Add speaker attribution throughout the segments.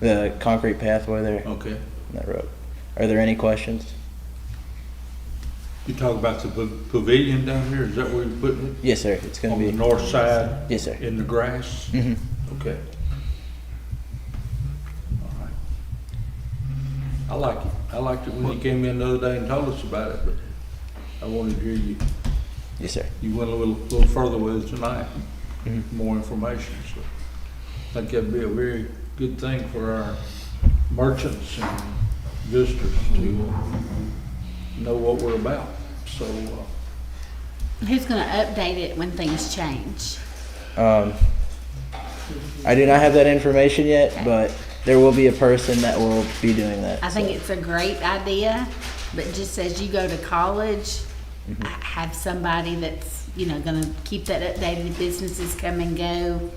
Speaker 1: the concrete pathway there, on
Speaker 2: Okay.
Speaker 1: that road. Are there any questions?
Speaker 2: You talk about the pa- pavilion down here, is that where you're putting it?
Speaker 1: Yes, sir, it's gonna
Speaker 2: On the
Speaker 1: be,
Speaker 2: north side,
Speaker 1: yes, sir.
Speaker 2: in the grass?
Speaker 1: Mhm.
Speaker 2: Okay. All right. I like it. I liked it when you came in the other day and told us about it, but I wanted to hear you,
Speaker 1: Yes, sir.
Speaker 2: you went a little, little further with it tonight.
Speaker 1: Mm-hmm.
Speaker 2: More information, so I think that'd be a very good thing for our merchants and visitors to uh, know what we're about, so, uh,
Speaker 3: Who's gonna update it when things change?
Speaker 1: Um, I do not have that information yet, but there will be a person that will be doing that.
Speaker 3: I think
Speaker 1: so.
Speaker 3: it's a great idea, but just as you go to college,
Speaker 1: Mm-hmm.
Speaker 3: h- have somebody that's, you know, gonna keep that updated, businesses come and go.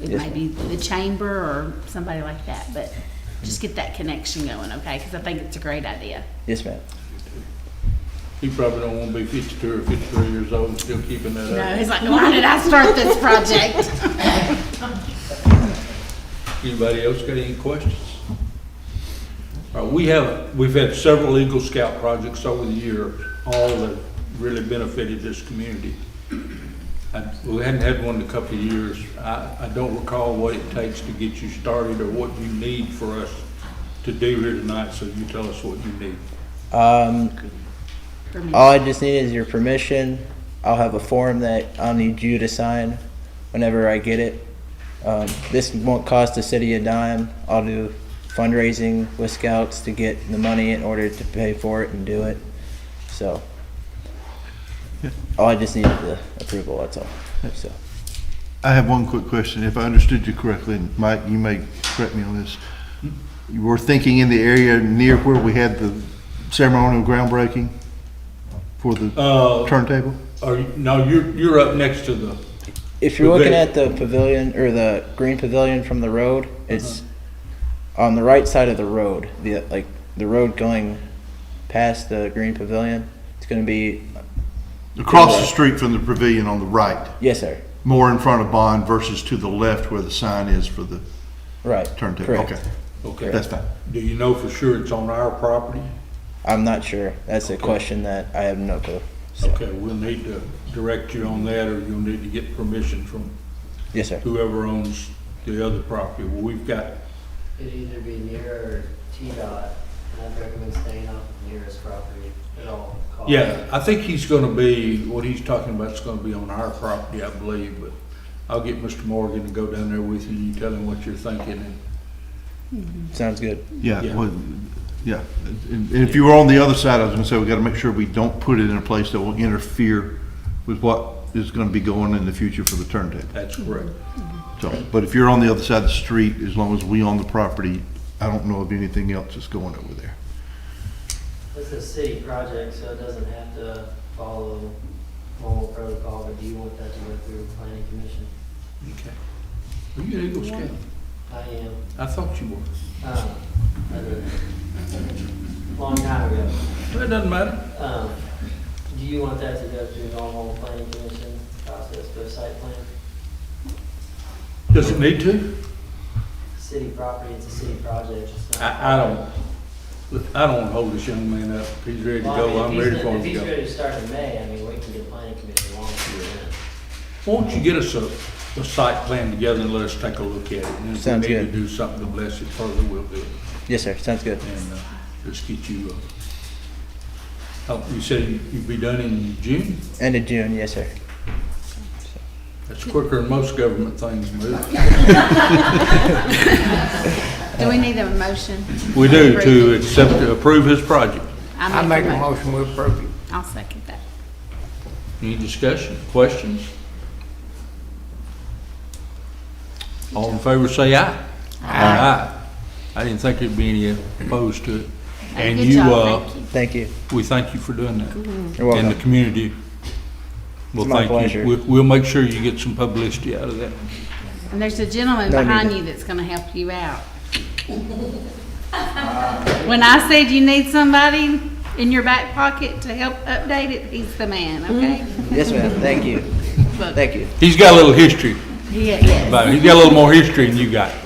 Speaker 3: It
Speaker 1: Yes,
Speaker 3: may
Speaker 1: ma'am.
Speaker 3: be the chamber or somebody like that, but just get that connection going, okay? Cause I think it's a great idea.
Speaker 1: Yes, ma'am.
Speaker 2: He probably don't wanna be fifty-two or fifty-three years old and still keeping that
Speaker 3: No,
Speaker 2: up.
Speaker 3: he's like, why did I start this project?
Speaker 2: Anybody else got any questions? All right, we have, we've had several Eagle Scout projects over the year, all that really benefited this community. I- We hadn't had one in a couple of years. I, I don't recall what it takes to get you started or what you need for us to do here tonight, so you tell us what you need.
Speaker 1: Um,
Speaker 3: For me.
Speaker 1: all I just need is your permission. I'll have a form that I'll need you to sign whenever I get it. Um, this won't cost the city a dime. I'll do fundraising with scouts to get the money in order to pay for it and do it. So, all I just need is the approval, that's all, so.
Speaker 4: I have one quick question. If I understood you correctly, and Mike, you may correct me on this. You were thinking in the area near where we had the ceremonial groundbreaking for the
Speaker 2: Uh,
Speaker 4: turntable?
Speaker 2: are, you- no, you're, you're up next to the,
Speaker 1: If you're looking
Speaker 2: Pavilion.
Speaker 1: at the pavilion or the green pavilion from the road, it's on the right side of the road. The like the road going past the green pavilion. It's going to be
Speaker 4: Across the street from the pavilion on the right,
Speaker 1: yes, sir.
Speaker 4: more in front of Bond versus to the left where the sign is for the
Speaker 1: Right.
Speaker 4: turntable.
Speaker 1: Correct.
Speaker 4: Okay,
Speaker 2: okay.
Speaker 4: that's fine.
Speaker 2: Do you know for sure it's on our property?
Speaker 1: I'm not sure. That's a question that I have no clue. So,
Speaker 2: Okay, we'll need to direct you on that, or you'll need to get permission from
Speaker 1: Yes, sir.
Speaker 2: whoever owns the other property. Well, We've got,
Speaker 5: It'd either be near or T-Dot, and I'd recommend staying off the nearest property at all costs.
Speaker 2: yeah, I think he's gonna be, what he's talking about is gonna be on our property, I believe, but I'll get Mr. Morgan to go down there with you, and you tell him what you're thinking, and
Speaker 1: Sounds good.
Speaker 2: Yeah.
Speaker 4: Yeah, well, yeah. And and if you were on the other side, I was gonna say, we gotta make sure we don't put it in a place that will interfere with what is gonna be going in the future for the turntable.
Speaker 2: that's correct.
Speaker 4: So, but if you're on the other side of the street, as long as we own the property, I don't know of anything else that's going over there.
Speaker 5: This is a city project, so it doesn't have to follow normal protocol, but do you want that to go through planning commission?
Speaker 2: Okay. Are you an Eagle Scout?
Speaker 5: I am,
Speaker 2: I thought you were.
Speaker 5: um, a long time ago.
Speaker 2: Well, It doesn't matter.
Speaker 5: Um, do you want that to go through normal planning commission process for a site plan?
Speaker 2: Does it need to?
Speaker 5: City property, it's a city project, it's not.
Speaker 2: I, I don't, I don't wanna hold this young man up. He's ready to
Speaker 5: Well,
Speaker 2: go,
Speaker 5: I
Speaker 2: I'm
Speaker 5: mean, if
Speaker 2: ready
Speaker 5: he's-
Speaker 2: for him to
Speaker 5: If he's ready
Speaker 2: go.
Speaker 5: to start in May, I mean, we can get planning commission along with you then.
Speaker 2: Won't you get us a, a site plan together and let us take a look at it? And if we
Speaker 1: Sounds
Speaker 2: need to
Speaker 1: good.
Speaker 2: do something to bless it further, we'll do it.
Speaker 1: Yes, sir. Sounds good.
Speaker 2: And, uh, let's get you, uh, help, you said you'd be done in June?
Speaker 1: End of June. Yes, sir.
Speaker 2: That's quicker than most government things move.
Speaker 3: Do we need a motion?
Speaker 2: We do, to accept, to approve his project.
Speaker 3: I make a motion, we approve it. I'll second that.
Speaker 2: Any discussion, questions? All in favor, say aye. Aye. I didn't think there'd be any opposed to it. And
Speaker 3: Good
Speaker 2: you,
Speaker 3: job,
Speaker 2: uh,
Speaker 3: thank you.
Speaker 1: Thank you.
Speaker 2: we thank you for doing that.
Speaker 1: You're
Speaker 2: And the
Speaker 1: welcome.
Speaker 2: community will
Speaker 1: It's my
Speaker 2: thank you.
Speaker 1: pleasure.
Speaker 2: We- We'll make sure you get some publicity out of that.
Speaker 3: And there's a gentleman
Speaker 1: No need.
Speaker 3: behind you that's gonna help you out. When I said you need somebody in your back pocket to help update it, he's the man, okay?
Speaker 1: Yes, ma'am. Thank you.
Speaker 3: But-
Speaker 1: Thank you.
Speaker 2: He's got a little history,
Speaker 3: Yeah, yes.
Speaker 2: but he's got a little more history than you got.